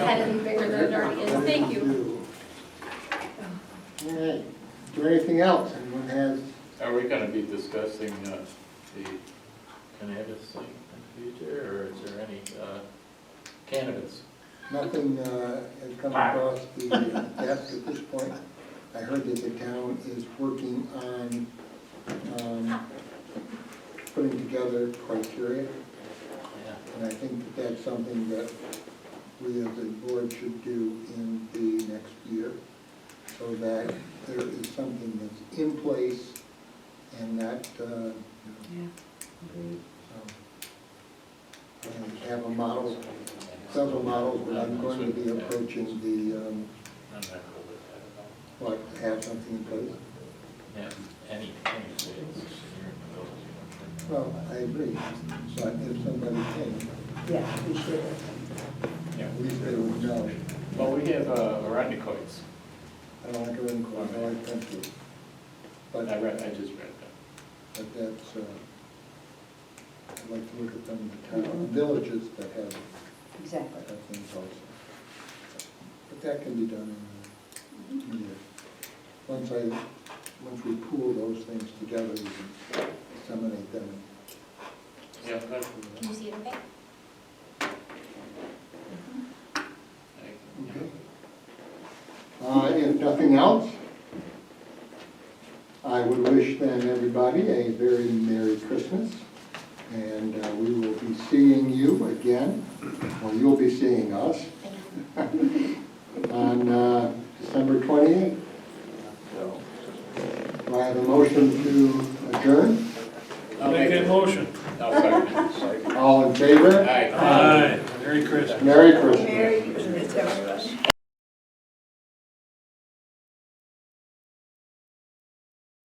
had any bigger than it already is, thank you. All right, is there anything else anyone has? Are we gonna be discussing, uh, the cannabis thing in the future, or is there any, uh, cannabis? Nothing uh, has come across the desk at this point. I heard that the town is working on um, putting together criteria, Yeah. and I think that that's something that we as a board should do in the next year, so that there is something that's in place and that, uh, you know, so, and have a model several models, but I'm going to be approaching the, um, I'm not cool with that like, have something in place. at all. And any, any sales here in the village, you know? Well, I agree, but if somebody came, Yeah, we should. Yeah. at least they would know. Well, we have, uh, arachnoids, I don't like a ring I like country. But, I read, I just read that. but that's, uh, I'd like to look at them in the town, villages that have, Exactly. that have things also. But that can be done in a year. Once I, once we pool those things together, we can disseminate them Yeah, that, Can you see it okay? I, Uh, If nothing else, I would wish then everybody a very Merry Christmas, and uh, we will be seeing you again, or you'll be seeing us, Thank you. on uh, December 28th.